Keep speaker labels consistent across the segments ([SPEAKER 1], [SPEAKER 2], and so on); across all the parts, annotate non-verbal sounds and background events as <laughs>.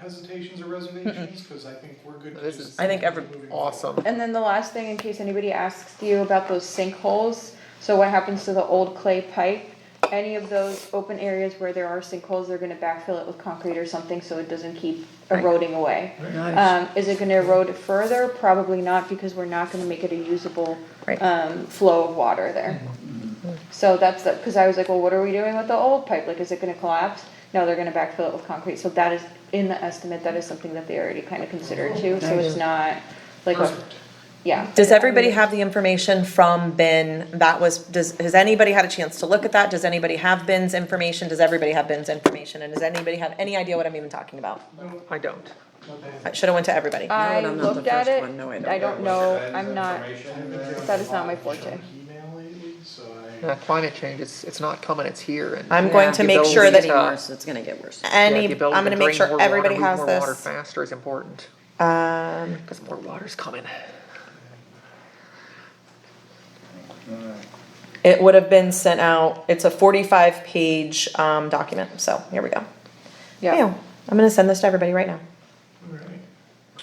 [SPEAKER 1] hesitations or
[SPEAKER 2] <laughs>
[SPEAKER 1] reservations? Cause I think we're good. to
[SPEAKER 3] This
[SPEAKER 1] just
[SPEAKER 3] is-
[SPEAKER 2] I think every-
[SPEAKER 1] moving forward.
[SPEAKER 3] Awesome.
[SPEAKER 4] And then the last thing, in case anybody asks you about those sinkholes, so what happens to the old clay pipe? Any of those open areas where there are sinkholes, they're gonna backfill it with concrete or something so it doesn't keep
[SPEAKER 3] Right.
[SPEAKER 4] eroding away. Um, is it gonna erode further? Probably not, because we're not gonna make it a usable,
[SPEAKER 2] Right.
[SPEAKER 4] um, flow of water there. So that's, the cause I was like, well, what are we doing with the old pipe? Like, is it gonna collapse? No, they're gonna backfill it with concrete, so that is, in the estimate, that is something that they already kinda considered too, so it's not like a,
[SPEAKER 1] Perfect.
[SPEAKER 4] yeah.
[SPEAKER 2] Does everybody have the information from Ben? That was, does, has anybody had a chance to look at that? Does anybody have Ben's information? Does everybody have Ben's information? And does anybody have any idea what I'm even talking about?
[SPEAKER 1] No,
[SPEAKER 3] I don't.
[SPEAKER 1] not
[SPEAKER 2] I
[SPEAKER 1] bad.
[SPEAKER 2] should've went to everybody.
[SPEAKER 4] I
[SPEAKER 3] No, I'm not the
[SPEAKER 4] looked at
[SPEAKER 3] first
[SPEAKER 4] it,
[SPEAKER 3] one. No, I don't.
[SPEAKER 4] I don't know, I'm not,
[SPEAKER 1] I've
[SPEAKER 4] that is not
[SPEAKER 1] been getting a lot
[SPEAKER 4] my
[SPEAKER 1] of
[SPEAKER 4] forte.
[SPEAKER 1] junk Email lately, so
[SPEAKER 3] Yeah,
[SPEAKER 1] I,
[SPEAKER 3] climate change, it's, it's not coming, it's here and.
[SPEAKER 2] I'm going to make sure
[SPEAKER 3] Ability
[SPEAKER 2] that
[SPEAKER 3] to-
[SPEAKER 5] it's gonna get worse.
[SPEAKER 3] yeah,
[SPEAKER 2] any,
[SPEAKER 3] the
[SPEAKER 2] I'm
[SPEAKER 3] ability
[SPEAKER 2] gonna
[SPEAKER 3] to
[SPEAKER 2] make
[SPEAKER 3] drain more
[SPEAKER 2] sure
[SPEAKER 3] water,
[SPEAKER 2] everybody
[SPEAKER 3] move
[SPEAKER 2] has
[SPEAKER 3] more Water
[SPEAKER 2] this.
[SPEAKER 3] faster is important,
[SPEAKER 2] Um,
[SPEAKER 3] cause more water's coming.
[SPEAKER 2] it would have been sent out, it's a forty-five page, um, document, so here we go.
[SPEAKER 4] yeah,
[SPEAKER 2] I'm gonna send this to everybody right now.
[SPEAKER 1] alright.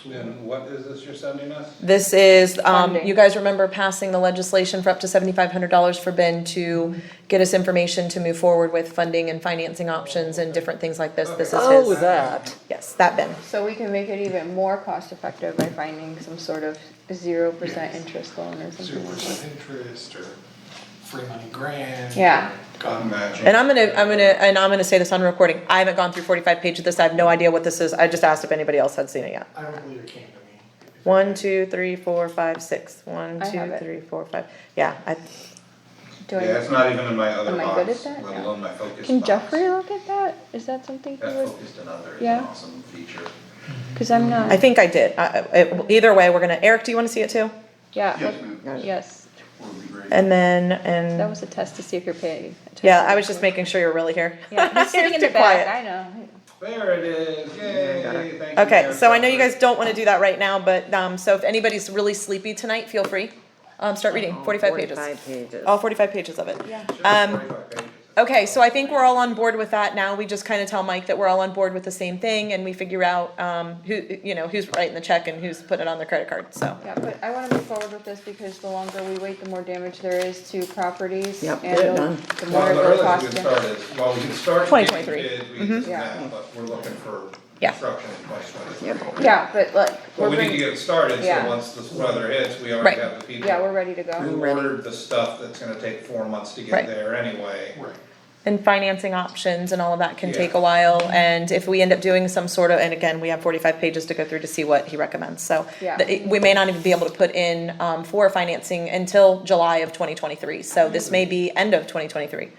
[SPEAKER 6] Then what is this you're sending us?
[SPEAKER 2] This is, um,
[SPEAKER 4] Funding.
[SPEAKER 2] you guys remember passing the legislation for up to seventy-five hundred dollars for Ben to get us information to move forward with funding and financing options and different things like this, this is
[SPEAKER 3] Oh,
[SPEAKER 2] his.
[SPEAKER 3] that.
[SPEAKER 2] Yes, that Ben,
[SPEAKER 4] so we can make it even more cost effective by finding some sort of zero percent interest loan
[SPEAKER 1] Zero
[SPEAKER 4] or something like that.
[SPEAKER 1] percent interest or free money grant.
[SPEAKER 4] Yeah.
[SPEAKER 1] or God,
[SPEAKER 2] and I'm gonna, I'm gonna, and I'm gonna say this on recording, I haven't gone through forty-five pages of this, I have no idea what this is, I just asked if anybody else had seen it yet.
[SPEAKER 1] I don't believe it came to me.
[SPEAKER 2] One, two, three, four, five, six. One,
[SPEAKER 4] I have
[SPEAKER 2] two,
[SPEAKER 4] it.
[SPEAKER 2] three, four, five, yeah, I,
[SPEAKER 4] Do
[SPEAKER 6] Yeah,
[SPEAKER 4] I,
[SPEAKER 6] it's not even in my other
[SPEAKER 4] Am I good
[SPEAKER 6] box,
[SPEAKER 4] at that?
[SPEAKER 6] let
[SPEAKER 4] No.
[SPEAKER 6] alone my focus box.
[SPEAKER 4] can Jeffrey look at that? Is that something he
[SPEAKER 6] That
[SPEAKER 4] would,
[SPEAKER 6] focused another is
[SPEAKER 4] Yeah.
[SPEAKER 6] an awesome feature.
[SPEAKER 4] cause I'm
[SPEAKER 2] I
[SPEAKER 4] not,
[SPEAKER 2] think I did, I, I- it- either way, we're gonna, Eric, do you wanna see it too?
[SPEAKER 4] yeah,
[SPEAKER 6] Yes,
[SPEAKER 4] look-
[SPEAKER 6] ma'am.
[SPEAKER 4] yes,
[SPEAKER 6] Would be great.
[SPEAKER 2] And then, and.
[SPEAKER 4] that was a test to see if you're paying. attention.
[SPEAKER 2] Yeah, I was just making sure you're really here.
[SPEAKER 4] <laughs>
[SPEAKER 2] <laughs>
[SPEAKER 4] Yeah, he's sitting
[SPEAKER 2] You're
[SPEAKER 4] in the
[SPEAKER 2] too quiet.
[SPEAKER 4] back, I know,
[SPEAKER 6] There it is, yay,
[SPEAKER 3] got
[SPEAKER 6] thank
[SPEAKER 3] it.
[SPEAKER 6] you.
[SPEAKER 2] Okay,
[SPEAKER 6] Mayor
[SPEAKER 2] so I know you
[SPEAKER 6] Jeffrey.
[SPEAKER 2] guys
[SPEAKER 4] um,
[SPEAKER 2] don't wanna do that right now, but, um, so if anybody's really sleepy tonight, feel free. Um, start reading, forty-five pages,
[SPEAKER 5] Forty-five pages.
[SPEAKER 2] all forty-five pages of it.
[SPEAKER 4] yeah.
[SPEAKER 6] Sure,
[SPEAKER 2] um,
[SPEAKER 6] 45 pages.
[SPEAKER 2] Okay, so I think we're all on board with that now, we just kinda tell Mike that we're all on board with the same thing, and we figure out, um, who, you know, who's writing the check and who's putting it on their credit card, so.
[SPEAKER 4] Yeah, but I wanna move forward with this because the longer we wait, the more damage there is to properties
[SPEAKER 5] Yep,
[SPEAKER 4] and
[SPEAKER 5] get it
[SPEAKER 4] the
[SPEAKER 5] done.
[SPEAKER 4] the more
[SPEAKER 6] Well,
[SPEAKER 4] it
[SPEAKER 6] the
[SPEAKER 4] will
[SPEAKER 6] earliest
[SPEAKER 4] cost.
[SPEAKER 6] we can
[SPEAKER 4] them.
[SPEAKER 6] start is, well, we can start.
[SPEAKER 2] 2023.
[SPEAKER 6] getting bids, we can do
[SPEAKER 4] Mm-hmm. Yeah.
[SPEAKER 6] that, But we're looking for
[SPEAKER 2] Yeah.
[SPEAKER 6] construction in twenty twenty-three.
[SPEAKER 4] Yeah, but like,
[SPEAKER 6] But
[SPEAKER 4] we're
[SPEAKER 6] we need to
[SPEAKER 4] ready,
[SPEAKER 6] get started,
[SPEAKER 4] Yeah.
[SPEAKER 6] so once this weather hits, we
[SPEAKER 2] Right.
[SPEAKER 6] already have the people.
[SPEAKER 4] yeah, we're ready to go.
[SPEAKER 6] Who ordered the stuff that's gonna take four months to
[SPEAKER 2] Right.
[SPEAKER 6] get there anyway.
[SPEAKER 1] Right.
[SPEAKER 2] And financing options and all of that can take a
[SPEAKER 6] Yeah.
[SPEAKER 2] while, and if we end up doing some sort of, and again, we have forty-five pages to go through to see what he recommends, so.
[SPEAKER 4] Yeah.
[SPEAKER 2] th- We may not even be able to put in, um, for financing until July of twenty twenty-three, so this may be end of twenty twenty-three.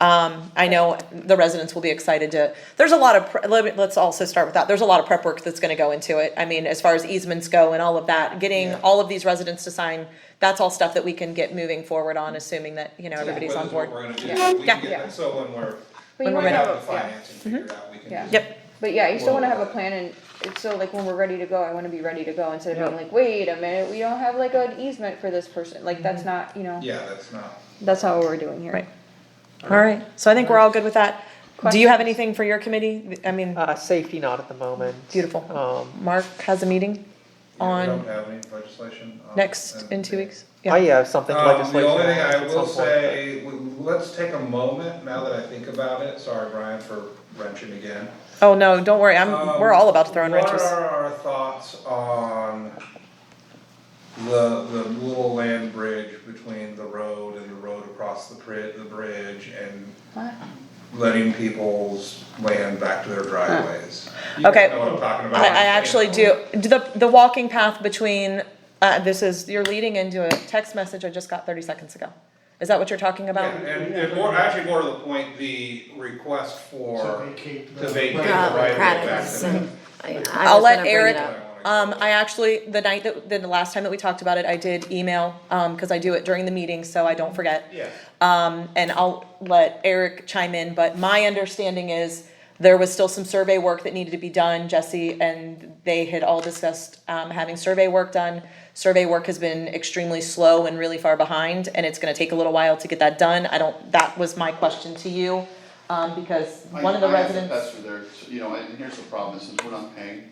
[SPEAKER 2] Um, I know the residents will be excited to, there's a lot of, pre- let me- let's also start with that, there's a lot of prep work that's gonna go into it. I mean, as far as easements go and all of that, getting
[SPEAKER 6] Yeah.
[SPEAKER 2] all of these residents to sign, that's all stuff that we can get moving forward on, assuming that, you know, everybody's on board.
[SPEAKER 6] What is what we're gonna do, we
[SPEAKER 2] Yeah.
[SPEAKER 6] can get, that- so when
[SPEAKER 4] But
[SPEAKER 2] When
[SPEAKER 6] we're,
[SPEAKER 4] you
[SPEAKER 2] we're
[SPEAKER 6] we
[SPEAKER 4] wanna
[SPEAKER 2] ready. Mm-hmm.
[SPEAKER 6] have
[SPEAKER 4] have,
[SPEAKER 6] the
[SPEAKER 4] a- yeah,
[SPEAKER 6] financing figured out, we can
[SPEAKER 4] Yeah.
[SPEAKER 6] just.
[SPEAKER 2] Yep,
[SPEAKER 4] but yeah, you still wanna
[SPEAKER 6] Well-
[SPEAKER 4] have a plan and it's so like when we're ready to go, I wanna be ready to go instead of being like, wait a minute, we don't have like an easement for this person, like that's not, you know,
[SPEAKER 6] Yeah, that's not,
[SPEAKER 4] that's not what we're doing here.
[SPEAKER 2] Right. all right, so I think we're all good with that. Do you have anything for your committee? I mean,
[SPEAKER 3] Uh, safety not at the moment.
[SPEAKER 2] Beautiful.
[SPEAKER 3] Um,
[SPEAKER 2] Mark has a meeting
[SPEAKER 6] yeah, we
[SPEAKER 2] On
[SPEAKER 6] don't have any legislation. on-
[SPEAKER 2] next, in two weeks? Yeah.
[SPEAKER 3] I have something
[SPEAKER 6] Um,
[SPEAKER 3] legislation.
[SPEAKER 6] the only thing
[SPEAKER 3] at
[SPEAKER 6] I
[SPEAKER 3] some
[SPEAKER 6] will
[SPEAKER 3] point,
[SPEAKER 6] say, w- let's take a moment, now that I think about it, sorry Brian for wrenching again.
[SPEAKER 2] Oh, no, don't worry, I'm, we're
[SPEAKER 6] Um,
[SPEAKER 2] all about to throw in wrenches.
[SPEAKER 6] What are our thoughts on the, the little land bridge between the road and the road across the pri- the bridge and
[SPEAKER 4] What?
[SPEAKER 6] letting people's land back to their driveways? You
[SPEAKER 2] Okay.
[SPEAKER 6] guys know what I'm talking about.
[SPEAKER 2] I, I actually do, the, the walking path between, uh, this is, you're leading into a text message I just got thirty seconds ago. Is that what you're talking
[SPEAKER 6] Yeah,
[SPEAKER 2] about?
[SPEAKER 6] And, and more, actually more to the point, the request for.
[SPEAKER 1] To vacate the-
[SPEAKER 6] To vacate the
[SPEAKER 1] Oh,
[SPEAKER 6] right of way back to
[SPEAKER 5] Practice.
[SPEAKER 6] them.
[SPEAKER 5] I- I
[SPEAKER 2] I'll
[SPEAKER 5] was
[SPEAKER 2] let
[SPEAKER 5] gonna bring it
[SPEAKER 2] Eric,
[SPEAKER 5] up.
[SPEAKER 2] um, I actually, the night that, the last time that we talked about it, I did email, um, cause I do it during the meeting, so I don't forget.
[SPEAKER 6] Yeah,
[SPEAKER 2] Um, and I'll let Eric chime in, but my understanding is there was still some survey work that needed to be done, Jesse, and they had all discussed, um, having survey work done. Survey work has been extremely slow and really far behind, and it's gonna take a little while to get that done. I don't, that was my question to you.
[SPEAKER 7] um, because
[SPEAKER 8] I-
[SPEAKER 7] one of the
[SPEAKER 8] I have
[SPEAKER 7] residents.
[SPEAKER 8] That's for their, you know, and here's the problem, is since we're not paying